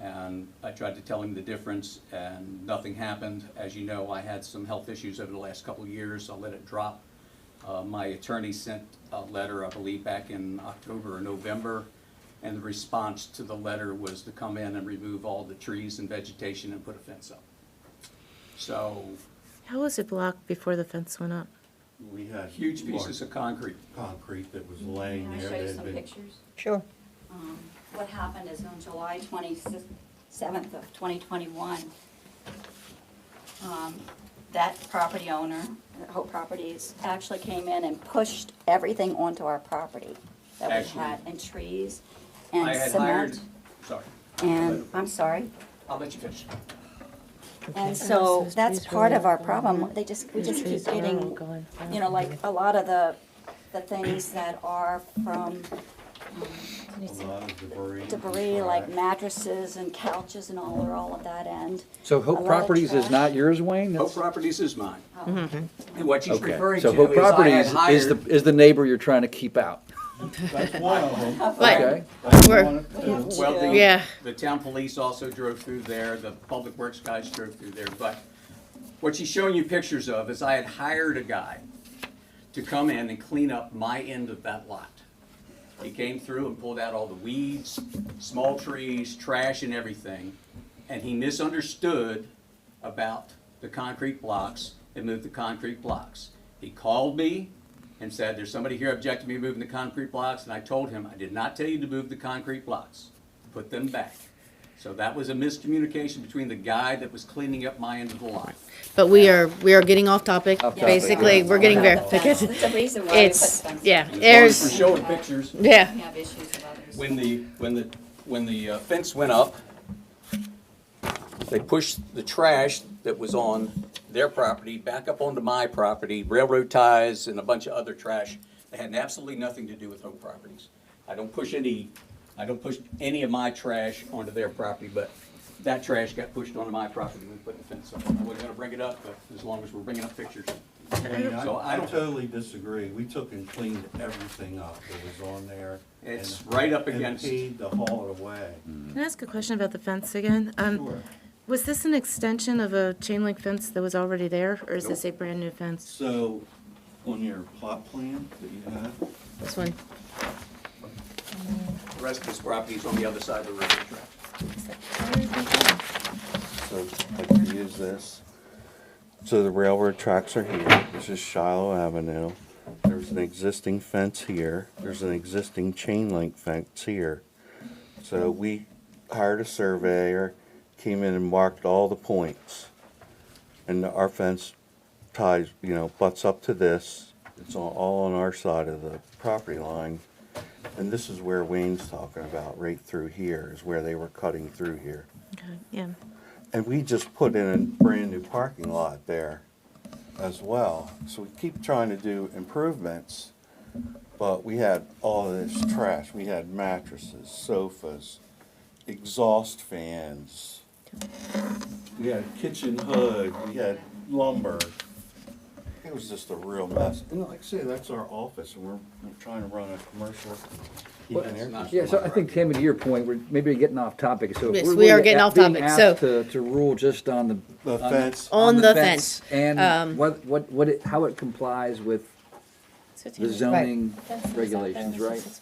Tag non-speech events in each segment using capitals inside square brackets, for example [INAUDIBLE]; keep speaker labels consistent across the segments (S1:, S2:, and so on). S1: and I tried to tell him the difference, and nothing happened. As you know, I had some health issues over the last couple of years, I let it drop. Uh, My attorney sent a letter, I believe, back in October or November, and the response to the letter was to come in and remove all the trees and vegetation and put a fence up. So,
S2: How was it blocked before the fence went up?
S3: We had.
S1: huge pieces of concrete.
S3: large Concrete that was laying
S4: Can I
S3: there.
S4: show
S3: that
S4: you
S3: had
S4: some
S3: been-
S4: pictures?
S5: Sure.
S4: Um, What happened is on July 27th of 2021, um, that property owner, Hope Properties, actually came in and pushed everything onto our property that we
S1: Actually-
S4: had, and trees,
S1: I
S4: and
S1: had hired,
S4: cement,
S1: sorry,
S4: and, I'm sorry.
S1: I'll let you finish.
S4: And so that's part of our problem. They just, we
S2: The
S4: just keep
S2: trees are all
S4: getting,
S2: going
S4: you know, like a lot of the, the things that are from
S3: A lot of debris.
S4: debris like
S3: Right.
S4: mattresses and couches and all, are all at that end.
S6: So
S4: A lot
S6: Hope
S4: of
S6: Properties is
S4: trash.
S6: not yours, Wayne?
S1: Hope
S6: That's-
S1: Properties is mine.
S4: Oh.
S1: And what she's
S6: Mm-hmm. Okay.
S1: referring to
S6: So Hope
S1: is I had
S6: Properties is the,
S1: hired,
S6: is the neighbor you're trying to keep out,
S3: That's one of them.
S4: [LAUGHS]
S6: okay?
S3: That's
S2: We're-
S3: one of two.
S1: well, the,
S2: Yeah.
S1: the town police also drove through there, the public works guys drove through there, but what she's showing you pictures of is I had hired a guy to come in and clean up my end of that lot. He came through and pulled out all the weeds, small trees, trash and everything, and he misunderstood about the concrete blocks and moved the concrete blocks. He called me and said, there's somebody here objecting to me moving the concrete blocks, and I told him, I did not tell you to move the concrete blocks, put them back. So that was a miscommunication between the guy that was cleaning up my end of the lot.
S7: But we are, we are getting off topic,
S6: Off topic,
S7: basically,
S6: yeah.
S7: we're getting very,
S4: That's the reason why we put
S7: it's,
S4: fences.
S7: yeah,
S1: And as long as
S7: there's,
S1: We're showing pictures.
S7: yeah.
S4: We have issues with others.
S1: When the, when the, when the uh, fence went up, they pushed the trash that was on their property back up onto my property, railroad ties and a bunch of other trash that had absolutely nothing to do with home properties. I don't push any, I don't push any of my trash onto their property, but that trash got pushed onto my property when we put the fence up. I wasn't gonna bring it up, but as long as we're bringing up pictures.
S3: And
S1: So
S3: I
S1: I
S3: I
S1: don't-
S3: totally disagree. We took and cleaned everything up that was on there. and-
S1: It's right up
S3: and
S1: against- Mm.
S3: paid to haul it away.
S2: Can I ask a question about the fence again? Um,
S3: Sure.
S2: Was this an extension of a chain link fence that was already there, or is this a
S1: Nope.
S2: brand-new fence?
S3: So, on your plot plan that you have,
S7: This one,
S1: The rest of his property is on the other side of the railroad track.
S8: So I can use this. So the railroad tracks are here. This is Shiloh Avenue. There's an existing fence here. There's an existing chain link fence here. So we hired a surveyor, came in and marked all the points. And our fence ties, you know, butts up to this. It's all- all on our side of the property line. And this is where Wayne's talking about, right through here, is where they were cutting through here.
S2: Okay, Yeah,
S8: And we just put in a brand-new parking lot there as well. So we keep trying to do improvements, but we had all this trash. We had mattresses, sofas, exhaust fans. We had a kitchen hood, we had lumber. It was just a real mess. And like I say, that's our office, and we're, we're trying to run a commercial. heat and air
S1: not-
S6: Yeah, so I think, Tammy, to your point, we're maybe getting off topic, so. if
S7: Yes,
S6: we're
S7: we are
S6: really
S7: getting
S6: a-
S7: off
S6: being
S7: topic,
S6: asked
S7: so-
S6: To, to rule just on the.
S8: The fence,
S6: Oh,
S7: on the fence. um,
S6: And what, what, what, it- how it complies with the zoning regulations, right?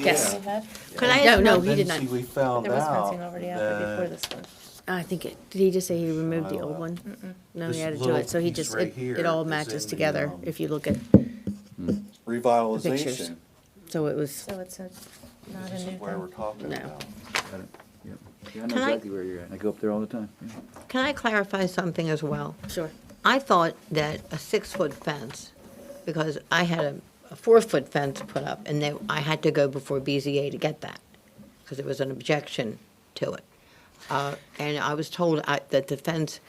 S7: Yes.
S8: yeah.
S2: Could I
S7: No,
S2: ask
S7: no,
S2: one-
S7: he did
S8: Then,
S7: not.
S8: see, we found
S2: There was fencing
S8: out
S2: already out there before
S8: that
S2: this one.
S7: I think it, did he just say he removed the old
S8: Shiloh.
S7: one? No,
S8: Uh, This
S7: he added to
S8: little
S7: it, so he
S8: piece
S7: just,
S8: right
S7: it,
S8: here
S7: it all
S8: is
S7: matches
S8: in the,
S7: together,
S8: um,
S7: if you look at,
S8: revitalization,
S7: so it was,
S2: So it's a, not a
S8: this
S2: new
S8: is where we're
S2: thing.
S8: talking
S7: No.
S8: about.
S6: Yep. Yeah, I know
S5: Can I-
S6: exactly where you're at. I go up there all the time. yeah.
S5: Can I clarify something as well?
S7: sure.
S5: I thought that a six-foot fence, because I had a, a four-foot fence put up, and they, I had to go before BZA to get that, because there was an objection to it. Uh, and I was told I, that the fence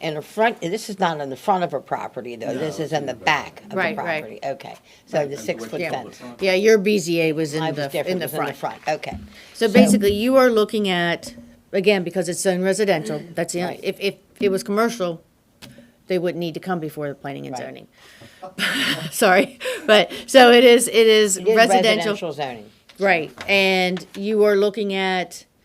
S5: in the front, this is not in the front of a property, though, this is in the back of the
S7: Right,
S5: property.
S7: right.
S5: Okay, so the six-foot
S1: Yeah.
S5: fence.
S7: Yeah, your BZA was
S5: I
S7: in
S5: was
S7: the,
S5: different,
S7: in
S5: it
S7: the
S5: was in the
S7: front.
S5: front, okay.
S7: So basically, you are looking at, again, because it's zone residential, that's the, only- if, if it was commercial, they wouldn't need to come before the planning and
S5: Right.
S7: zoning. [LAUGHS] Sorry, but, so it is, it is
S5: It is
S7: residential.
S5: Residential zoning.
S7: Right, and you are looking at